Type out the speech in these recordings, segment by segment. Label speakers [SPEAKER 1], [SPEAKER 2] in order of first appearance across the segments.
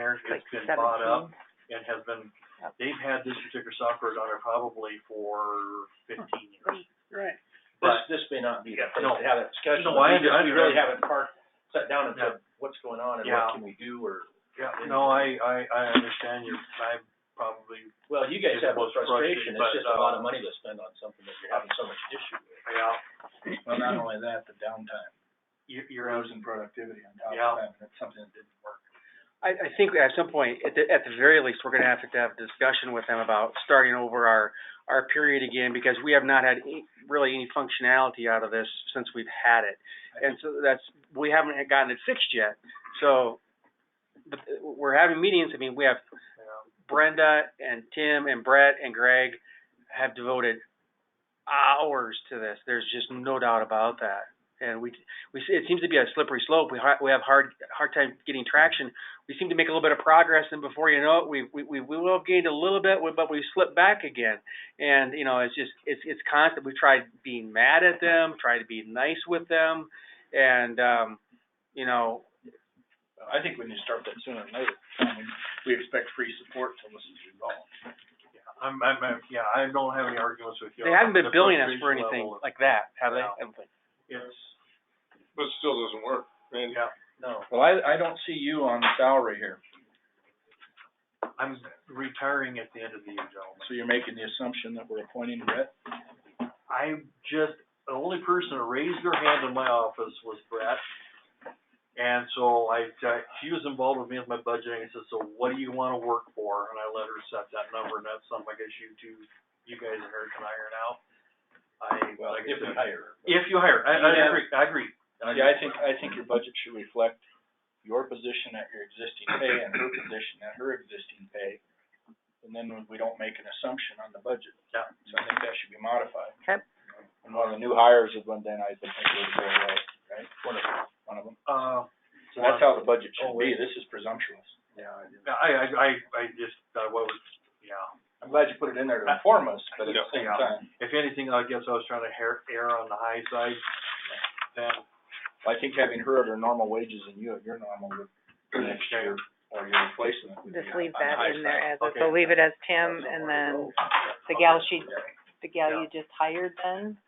[SPEAKER 1] software,
[SPEAKER 2] like
[SPEAKER 1] it's been bought up
[SPEAKER 2] seventeen.
[SPEAKER 1] and has been,
[SPEAKER 2] Yep.
[SPEAKER 1] they've had this particular software on there probably for fifteen years.
[SPEAKER 2] Right.
[SPEAKER 3] This,
[SPEAKER 1] But,
[SPEAKER 3] this may not be the
[SPEAKER 1] Yeah,
[SPEAKER 3] place
[SPEAKER 1] no.
[SPEAKER 3] to have a discussion,
[SPEAKER 1] No, I
[SPEAKER 3] we just,
[SPEAKER 1] under-
[SPEAKER 3] we
[SPEAKER 1] I-
[SPEAKER 3] really haven't parked, sat down and
[SPEAKER 1] Yeah.
[SPEAKER 3] said, what's going on and
[SPEAKER 1] Yeah.
[SPEAKER 3] what can we do, or,
[SPEAKER 1] yeah, no, I, I, I understand your, I probably,
[SPEAKER 3] well, you guys
[SPEAKER 1] It's
[SPEAKER 3] have a
[SPEAKER 1] both
[SPEAKER 3] frustration,
[SPEAKER 1] frustrating,
[SPEAKER 3] it's
[SPEAKER 1] but,
[SPEAKER 3] just a lot
[SPEAKER 1] um,
[SPEAKER 4] uh,
[SPEAKER 3] of money to spend on something that you're having so much issue with.
[SPEAKER 1] yeah,
[SPEAKER 4] Well, not only that, the downtime,
[SPEAKER 1] you,
[SPEAKER 4] you're
[SPEAKER 1] you're,
[SPEAKER 4] losing productivity on top
[SPEAKER 1] Yeah.
[SPEAKER 4] of that, and that's something that didn't work.
[SPEAKER 5] I, I think at some point, at the, at the very least, we're gonna have to have a discussion with them about starting over our, our period again, because we have not had any- really any functionality out of this since we've had it. And so that's, we haven't had gotten it fixed yet, so, the, we're having meetings, I mean, we have
[SPEAKER 1] yeah.
[SPEAKER 5] Brenda and Tim and Brett and Greg have devoted hours to this. There's just no doubt about that. And we, we, it seems to be a slippery slope. We, har- we have hard, hard time getting traction. We seem to make a little bit of progress, and before you know it, we, we, we we will have gained a little bit, but we slip back again. And you know, it's just, it's, it's constant. We've tried being mad at them, tried to be nice with them, and um, you know,
[SPEAKER 4] I think we need to start that sooner than later, I mean, we expect free support till this is resolved.
[SPEAKER 1] I'm, I'm, I'm, yeah, I don't have any arguments with you.
[SPEAKER 5] they haven't been
[SPEAKER 1] The
[SPEAKER 5] billing us for
[SPEAKER 1] frustration
[SPEAKER 5] anything
[SPEAKER 1] level is-
[SPEAKER 5] like that, have they?
[SPEAKER 1] Yeah.
[SPEAKER 5] I don't think.
[SPEAKER 1] It's,
[SPEAKER 6] But it still doesn't work. And
[SPEAKER 1] yeah,
[SPEAKER 3] No,
[SPEAKER 4] Well, I, I don't see you on the salary here,
[SPEAKER 1] I'm retiring at the end of the year, gentlemen.
[SPEAKER 4] so you're making the assumption that we're appointing Brett?
[SPEAKER 1] I just, the only person who raised her hand in my office was Brett. And so I, I- she was involved with me with my budgeting, I said, so what do you wanna work for? And I let her set that number, and that's something I guess you two, you guys and her can iron out. I,
[SPEAKER 3] well,
[SPEAKER 1] like I
[SPEAKER 3] if we
[SPEAKER 1] said,
[SPEAKER 3] hire.
[SPEAKER 1] if you hire, I, I agree, I agree,
[SPEAKER 4] Yeah, I think, I think your budget should reflect your position at your existing pay and her position at her existing pay, and then we don't make an assumption on the budget.
[SPEAKER 1] Yeah.
[SPEAKER 4] So I think that should be modified.
[SPEAKER 2] Okay.
[SPEAKER 4] And one of the new hires is one then I think would go away, right? One of them. One of them.
[SPEAKER 1] uh.
[SPEAKER 4] So that's how the budget should
[SPEAKER 1] Oh, wait.
[SPEAKER 4] be, this is presumptuous.
[SPEAKER 3] Yeah, I do.
[SPEAKER 1] I, I, I, I just, I was, yeah.
[SPEAKER 4] I'm glad you put it in there to inform us, but at the same
[SPEAKER 1] Yeah.
[SPEAKER 4] time,
[SPEAKER 1] If anything, I guess I was trying to hair, err on the high side, then
[SPEAKER 4] I think having her at her normal wages and you at your normal would, for next year, or your replacement would be
[SPEAKER 2] Just
[SPEAKER 4] on
[SPEAKER 2] leave
[SPEAKER 4] on the
[SPEAKER 2] that
[SPEAKER 4] high
[SPEAKER 2] in there
[SPEAKER 4] side.
[SPEAKER 2] as, is.
[SPEAKER 1] Okay.
[SPEAKER 2] so leave it as Tim
[SPEAKER 4] That's
[SPEAKER 2] and
[SPEAKER 4] somewhere to
[SPEAKER 2] then
[SPEAKER 4] go.
[SPEAKER 2] the gal she, the gal
[SPEAKER 1] Yeah.
[SPEAKER 2] you just hired then?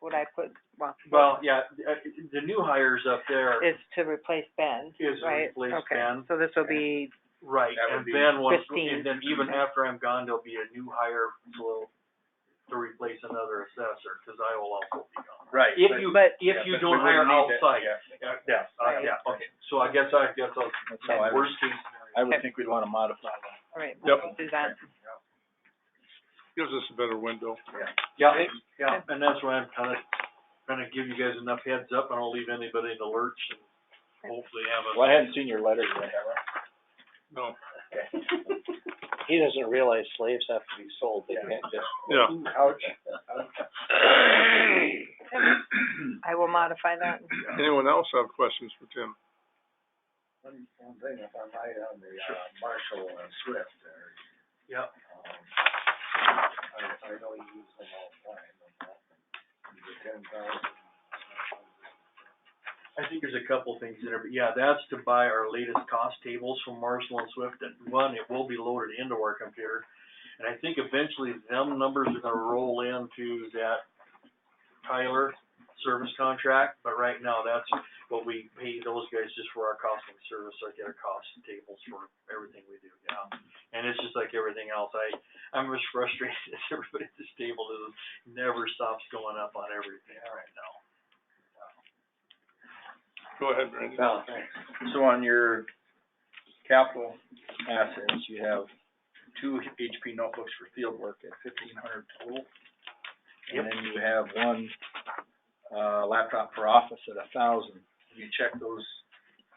[SPEAKER 2] Would I put, well,
[SPEAKER 1] Well, yeah, uh, the new hires up there is
[SPEAKER 2] is to replace Ben,
[SPEAKER 1] to
[SPEAKER 2] right?
[SPEAKER 1] replace
[SPEAKER 2] Okay,
[SPEAKER 1] Ben.
[SPEAKER 2] so this will be,
[SPEAKER 1] Right,
[SPEAKER 4] That
[SPEAKER 1] and
[SPEAKER 4] would be
[SPEAKER 1] then once,
[SPEAKER 2] Christine.
[SPEAKER 1] and then even after I'm gone, there'll be a new hire to, to replace another assessor, cause I will also be gone.
[SPEAKER 4] Right.
[SPEAKER 1] If
[SPEAKER 4] but-
[SPEAKER 1] you,
[SPEAKER 2] but
[SPEAKER 1] if
[SPEAKER 4] yeah,
[SPEAKER 1] you
[SPEAKER 4] but
[SPEAKER 1] don't
[SPEAKER 4] we
[SPEAKER 1] hire
[SPEAKER 4] wouldn't need that-
[SPEAKER 1] outside,
[SPEAKER 4] yeah,
[SPEAKER 1] yeah, yeah, uh,
[SPEAKER 2] Right.
[SPEAKER 1] yeah, okay, so I guess I, that's a,
[SPEAKER 4] That's how I would,
[SPEAKER 1] worst case scenario.
[SPEAKER 4] I would think we'd wanna modify that.
[SPEAKER 2] all right,
[SPEAKER 6] Yep.
[SPEAKER 2] we'll do that.
[SPEAKER 6] gives us a better window.
[SPEAKER 1] Yeah, yeah, and that's why I'm kinda, trying to give you guys enough heads up, I don't leave anybody in the lurch and hopefully have a.
[SPEAKER 4] Well, I hadn't seen your letter yet, have I?
[SPEAKER 6] No,
[SPEAKER 3] He doesn't realize slaves have to be sold,
[SPEAKER 4] they can't
[SPEAKER 3] just.
[SPEAKER 6] yeah.
[SPEAKER 4] Ouch.
[SPEAKER 2] I will modify that.
[SPEAKER 6] Anyone else have questions for Tim?
[SPEAKER 3] One, one thing, if I might, on the, uh, Marshall and Swift there,
[SPEAKER 1] Yeah,
[SPEAKER 3] um, I, I know you use them all the time, but, uh, the ten thousand,
[SPEAKER 1] I think there's a couple things in there, but yeah, that's to buy our latest cost tables from Marshall and Swift, and one, it will be loaded into our computer. And I think eventually them numbers are gonna roll into that Tyler service contract, but right now, that's what we pay those guys just for our cost of service, like our cost tables for everything we do, yeah. And it's just like everything else, I, I'm as frustrated as everybody at this table is, never stops going up on everything right now.
[SPEAKER 6] Go ahead, Randy.
[SPEAKER 4] Well, so on your capital assets, you have two HP notebooks for field work at fifteen hundred total.
[SPEAKER 1] Yep.
[SPEAKER 4] And then you have one, uh, laptop for office at a thousand. You check those,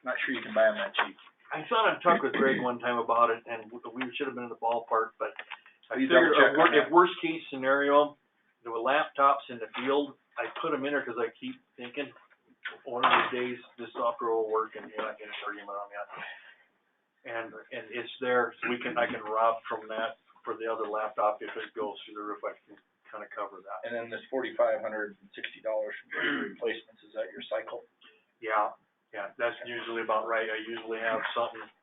[SPEAKER 4] not sure you can buy them that cheap.
[SPEAKER 1] I thought I talked with Greg one time about it, and w- we should have been in the ballpark, but I
[SPEAKER 4] You
[SPEAKER 1] figured,
[SPEAKER 4] double check
[SPEAKER 1] a wor-
[SPEAKER 4] on that.
[SPEAKER 1] if worst case scenario, there were laptops in the field, I put them in there, cause I keep thinking, one of these days, this software will work, and you're not getting an argument on that. And, and it's there, so we can, I can rob from that for the other laptop if it goes through the roof, I can kinda cover that.
[SPEAKER 4] And then this forty-five hundred and sixty dollars for replacements, is that your cycle?
[SPEAKER 1] Yeah, yeah, that's usually about right, I usually have something